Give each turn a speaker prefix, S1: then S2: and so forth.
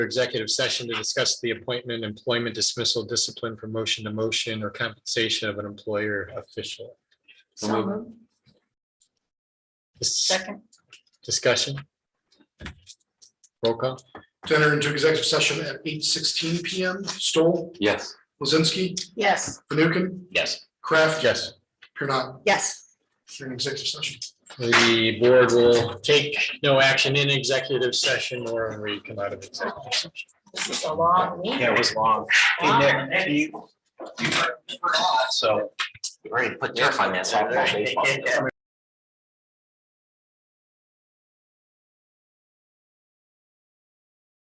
S1: executive session to discuss the appointment, employment dismissal, discipline, promotion to motion, or compensation of an employer official.
S2: So moved.
S1: Dis-
S2: Second.
S1: Discussion. Roll call.
S3: To enter into executive session at eight sixteen PM. Stoll,
S4: Yes.
S3: Lizinski,
S2: Yes.
S3: Fanukin,
S4: Yes.
S3: Kraft.
S1: Yes.
S3: You're not,
S2: Yes.
S3: you're in executive session.
S1: The board will take no action in executive session or when we come out of executive session.
S2: This is a long meeting.
S4: Yeah, it was long. Hey, Nick, you- you- So. You already put turf on that softball baseball.